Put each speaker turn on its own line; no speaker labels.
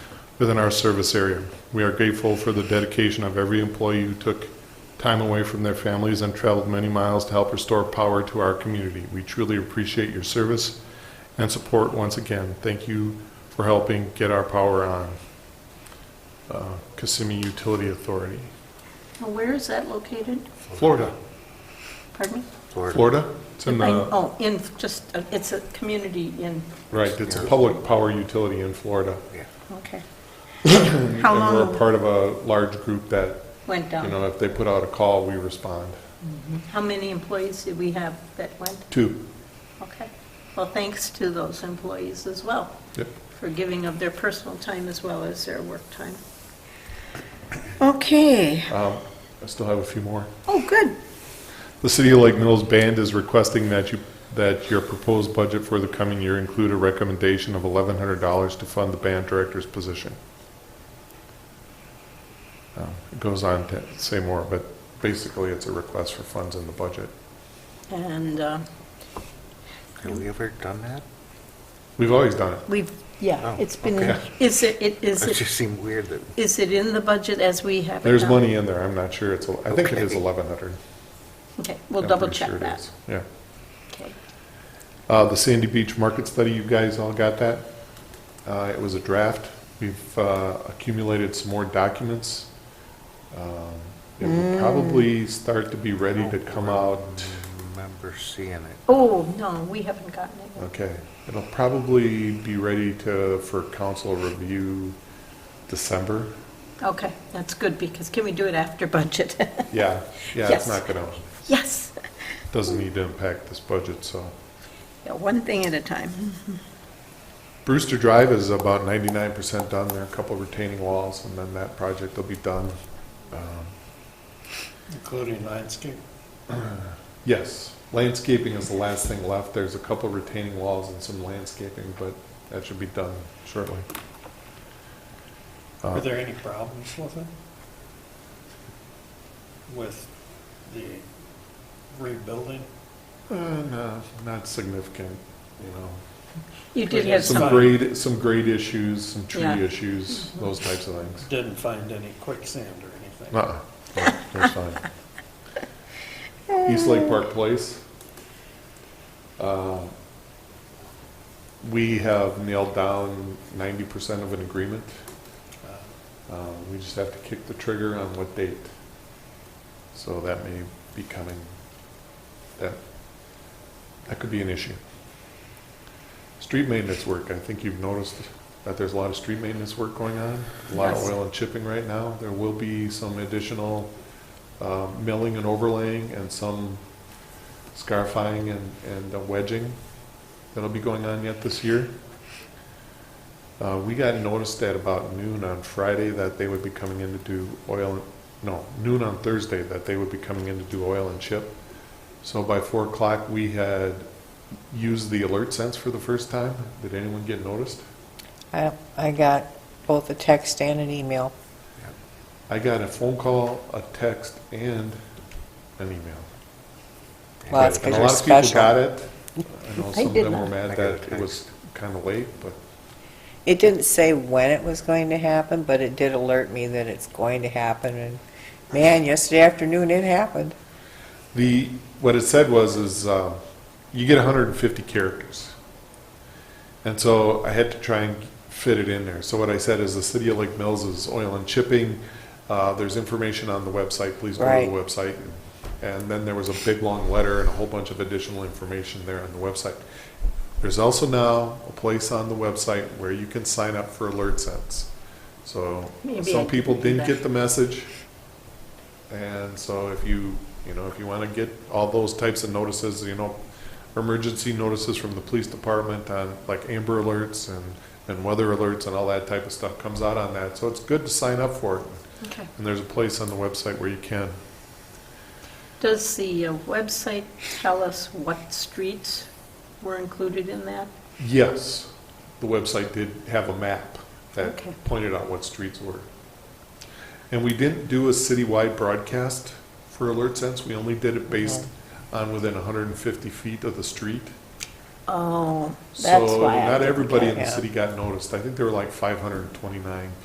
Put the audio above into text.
within our service area. We are grateful for the dedication of every employee who took time away from their families and traveled many miles to help restore power to our community. We truly appreciate your service and support once again. Thank you for helping get our power on. Uh, Kissimmee Utility Authority,
Now, Where is that located?
Florida.
Pardon me?
Florida? It's in the,
Oh, in, just, uh, it's a community in,
right, it's a public power utility in Florida.
okay. How
And we're a
long
part of a large group that,
went
you
down?
know, if they put out a call, we respond.
How many employees did we have that went?
Two.
Okay. Well, thanks to those employees as well,
Yep.
for giving of their personal time as well as their work time. Okay.
Um, I still have a few more.
Oh, good.
The City of Lake Mills Band is requesting that you, that your proposed budget for the coming year include a recommendation of eleven hundred dollars to fund the band director's position. Um, It goes on to say more, but basically it's a request for funds in the budget.
And uh,
Have we ever done that?
We've always done it.
we've, yeah,
Oh,
it's been, in-
okay.
is it, it- is
It
it,
just seemed weird that,
is it in the budget as we have it
There's
now?
money in there, I'm not sure it's, el- I think it is
Okay.
eleven hundred.
Okay, we'll double check that.
Yeah.
Okay.
Uh, the Sandy Beach Market Study, you guys all got that? Uh, it was a draft. We've, uh, accumulated some more documents. Um, It will probably start to be ready to come out,
remember seeing it.
Oh, no, we haven't gotten it. yet.
okay. It'll probably be ready to, for council review December.
Okay, that's good, because can we do it after budget?
Yeah, yeah, it's
Yes.
not gonna,
Yes.
doesn't need to impact this budget, so.
Yeah, One thing at a time.
Brewster Drive is about ninety-nine percent done. There are a couple retaining walls, and then that project will be done. Um,
Including landscape.
Yes, landscaping is the last thing left. There's a couple retaining walls and some landscaping, but that should be done shortly.
Were
Uh,
there any problems with it? With the rebuilding?
uh, no, not significant, you know.
You did have
Some
some,
Fine.
grade, some grade issues, some tree
Yeah.
issues, those types of things.
Didn't find any quicksand or anything?
Uh-uh, No, that's fine. East Lake Park Place. Uh, We have nailed down ninety percent of an agreement.
Uh,
Uh, We just have to kick the trigger on what date. So that may be coming, that, that could be an issue. Street maintenance work, I think you've noticed that there's a lot of street maintenance work going on, a lot of
Yes.
oil and chipping right now. There will be some additional uh, milling and overlaying and some scarifying and, and wedging that'll be going on yet this year. Uh, we got noticed at about noon on Friday that they would be coming in to do oil, no, noon on Thursday that they would be coming in to do oil and chip. So by four o'clock, we had used the alert sense for the first time. Did anyone get noticed?
I I got both a text and an email.
I got a phone call, a text, and an email.
Well, that's
And a
because you're
lot of people got
special.
it. I know
I
some of
did
them were
not.
mad
I got a
that it was kind of late, but
It didn't say when it was going to happen, but it did alert me that it's going to happen, and man, yesterday afternoon it happened.
The, what it said was, is um, you get 150 characters. And so I had to try and fit it in there. So what I said is the City of Lake Mills is oil and chipping. Uh, There's information on the website, please go to
Right.
the website. And then there was a big, long letter and a whole bunch of additional information there on the website. There's also now a place on the website where you can sign up for Alert Sense. So
Maybe I
some people
can do
didn't
that.
get the message. And so if you, you know, if you want to get all those types of notices, you know, emergency notices from the police department on like amber alerts and, and weather alerts and all that type of stuff comes out on that. So it's good to sign up for it.
okay.
And there's a place on the website where you can.
Does the uh, website tell us what streets were included in that?
Yes, the website did have a map that
Okay.
pointed out what streets were. And we didn't do a citywide broadcast for Alert Sense, we only did it based on within 150 feet of the street.
Oh, that's
So
why I
not
didn't
everybody
get
in the
yeah.
city got noticed, I think there were like 529